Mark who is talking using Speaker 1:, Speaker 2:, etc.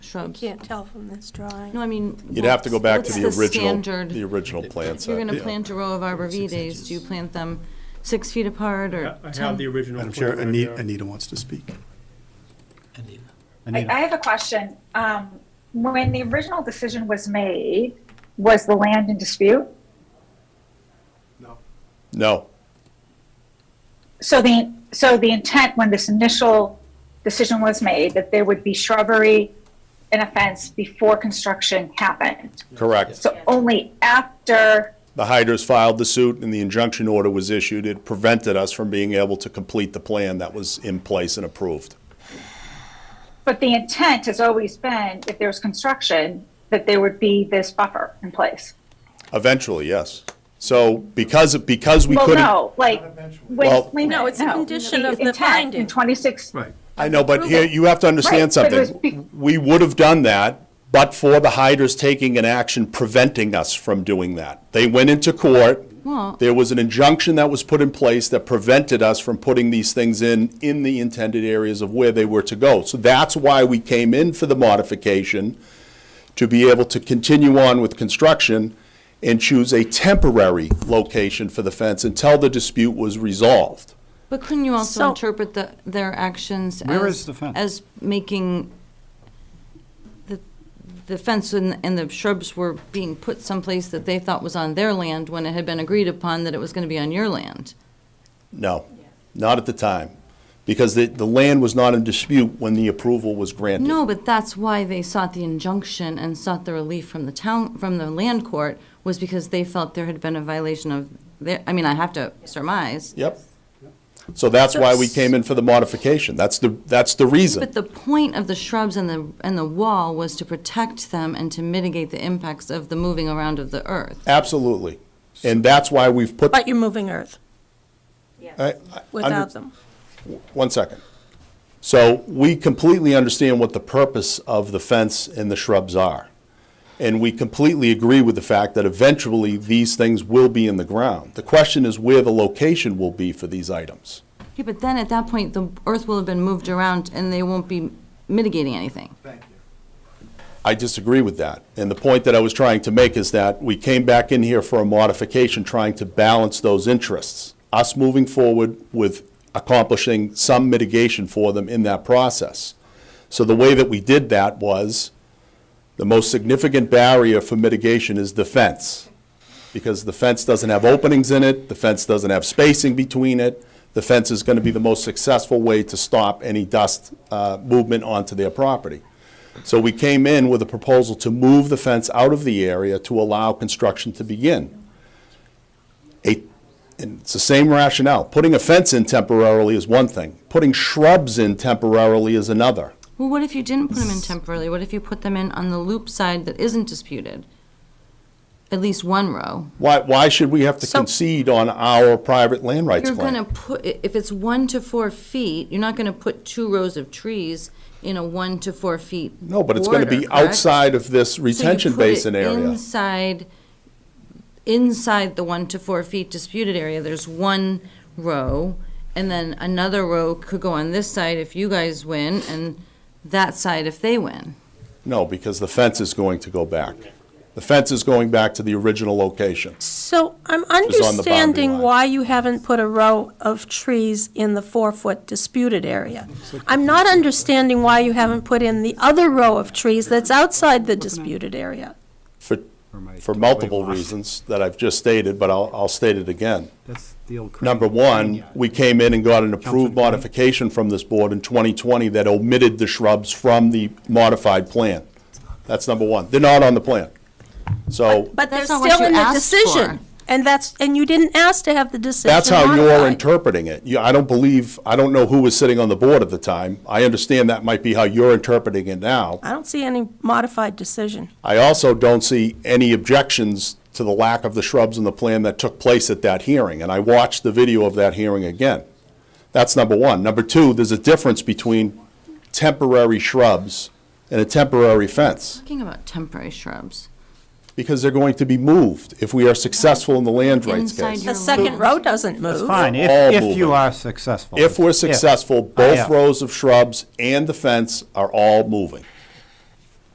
Speaker 1: shrubs.
Speaker 2: Can't tell from this drawing.
Speaker 1: No, I mean.
Speaker 3: You'd have to go back
Speaker 1: what's
Speaker 3: to the original,
Speaker 1: standard?
Speaker 3: the original plan
Speaker 1: If
Speaker 3: set.
Speaker 1: you're gonna
Speaker 3: yeah.
Speaker 1: plant a row of arborvitaes, do you plant them six feet apart or
Speaker 4: I I have
Speaker 1: ten?
Speaker 4: the original.
Speaker 5: Madam Chair,
Speaker 4: plan right
Speaker 5: Anita,
Speaker 4: there.
Speaker 5: Anita wants to speak.
Speaker 6: I, I have a question. Um, when the original decision was made, was the land in dispute?
Speaker 3: No,
Speaker 6: So the, so the intent when this initial decision was made, that there would be shrubbery and a fence before construction happened.
Speaker 3: correct.
Speaker 6: So only after,
Speaker 3: The hydras filed the suit and the injunction order was issued. It prevented us from being able to complete the plan that was in place and approved.
Speaker 6: but the intent has always been, if there was construction, that there would be this buffer in place.
Speaker 3: Eventually, yes. So because, because we
Speaker 6: Well,
Speaker 3: couldn't.
Speaker 6: no, like,
Speaker 3: Well-
Speaker 6: wait, wait a minute,
Speaker 2: No, it's a condition of the
Speaker 6: intent
Speaker 2: finding.
Speaker 6: in 26,
Speaker 5: Right.
Speaker 3: I know, but here, you have to understand
Speaker 6: Right, but it was
Speaker 3: something. We would have done that, but for the hydras taking an action preventing us from doing that. They went into court.
Speaker 1: Well-
Speaker 3: There was an injunction that was put in place that prevented us from putting these things in, in the intended areas of where they were to go. So that's why we came in for the modification, to be able to continue on with construction and choose a temporary location for the fence until the dispute was resolved.
Speaker 1: But couldn't you also
Speaker 2: So-
Speaker 1: interpret the, their actions as?
Speaker 7: Where is the fence?
Speaker 1: As making the, the fence and, and the shrubs were being put someplace that they thought was on their land when it had been agreed upon that it was gonna be on your land.
Speaker 3: No, not at the time, because the, the land was not in dispute when the approval was granted.
Speaker 1: No, but that's why they sought the injunction and sought the relief from the town, from the land court, was because they felt there had been a violation of their, I mean, I have to surmise.
Speaker 3: Yep. So that's why we came in for the modification. That's the, that's the
Speaker 1: But
Speaker 3: reason.
Speaker 1: the point of the shrubs and the, and the wall was to protect them and to mitigate the impacts of the moving around of the earth.
Speaker 3: Absolutely. And that's why we've put,
Speaker 2: But you're moving earth
Speaker 3: I- I- under-
Speaker 2: without them.
Speaker 3: one second. So we completely understand what the purpose of the fence and the shrubs are. And we completely agree with the fact that eventually these things will be in the ground. The question is where the location will be for these items.
Speaker 1: Yeah, but then at that point, the earth will have been moved around and they won't be mitigating anything.
Speaker 3: I disagree with that. And the point that I was trying to make is that we came back in here for a modification, trying to balance those interests. Us moving forward with accomplishing some mitigation for them in that process. So the way that we did that was, the most significant barrier for mitigation is the fence. Because the fence doesn't have openings in it, the fence doesn't have spacing between it. The fence is going to be the most successful way to stop any dust uh, movement onto their property. So we came in with a proposal to move the fence out of the area to allow construction to begin. A- and it's the same rationale. Putting a fence in temporarily is one thing. Putting shrubs in temporarily is another.
Speaker 1: Well, what if you didn't put them in temporarily? What if you put them in on the loop side that isn't disputed? At least one row.
Speaker 3: Why, why should we have to
Speaker 1: So-
Speaker 3: concede on our private land rights
Speaker 1: You're
Speaker 3: claim?
Speaker 1: gonna put, i- if it's one to four feet, you're not gonna put two rows of trees in a one to four feet.
Speaker 3: No, but it's gonna be
Speaker 1: border, correct?
Speaker 3: outside of this
Speaker 1: So you
Speaker 3: retention
Speaker 1: put it
Speaker 3: basin area.
Speaker 1: Inside, inside the one to four feet disputed area, there's one row, and then another row could go on this side if you guys win, and that side if they win.
Speaker 3: No, because the fence is going to go back. The fence is going back to the original location.
Speaker 2: So I'm
Speaker 3: boundary
Speaker 2: understanding
Speaker 3: line.
Speaker 2: why you haven't put a row of trees in the four-foot disputed area. I'm not understanding why you haven't put in the other row of trees that's outside the disputed area.
Speaker 3: For,
Speaker 7: my
Speaker 3: for multiple
Speaker 7: completely lost.
Speaker 3: reasons that I've just stated, but I'll, I'll state it again.
Speaker 7: That's the old. crane.
Speaker 3: Number one, we came in and got an approved
Speaker 7: Councilman Green?
Speaker 3: modification from this board in 2020 that omitted the shrubs from the modified plan. That's number one. They're not on the plan. So
Speaker 2: But they're
Speaker 1: That's not what
Speaker 2: still
Speaker 1: you
Speaker 2: in the
Speaker 1: asked
Speaker 2: decision.
Speaker 1: for.
Speaker 2: And that's, and you didn't ask to have the decision
Speaker 3: That's how you're
Speaker 2: modified.
Speaker 3: interpreting it. You, I don't believe, I don't know who was sitting on the board at the time. I understand that might be how you're interpreting it now.
Speaker 2: I don't see any modified decision.
Speaker 3: I also don't see any objections to the lack of the shrubs in the plan that took place at that hearing, and I watched the video of that hearing again. That's number one. Number two, there's a difference between temporary shrubs and a temporary fence,
Speaker 1: Talking about temporary shrubs.
Speaker 3: because they're going to be moved if we are successful in the land rights
Speaker 1: Inside
Speaker 3: case.
Speaker 1: your
Speaker 2: The second row doesn't move.
Speaker 7: It's fine, if,
Speaker 3: all
Speaker 7: if
Speaker 3: moving.
Speaker 7: you are successful.
Speaker 3: If we're successful, both
Speaker 7: Yeah.
Speaker 3: rows of shrubs and the fence are all moving.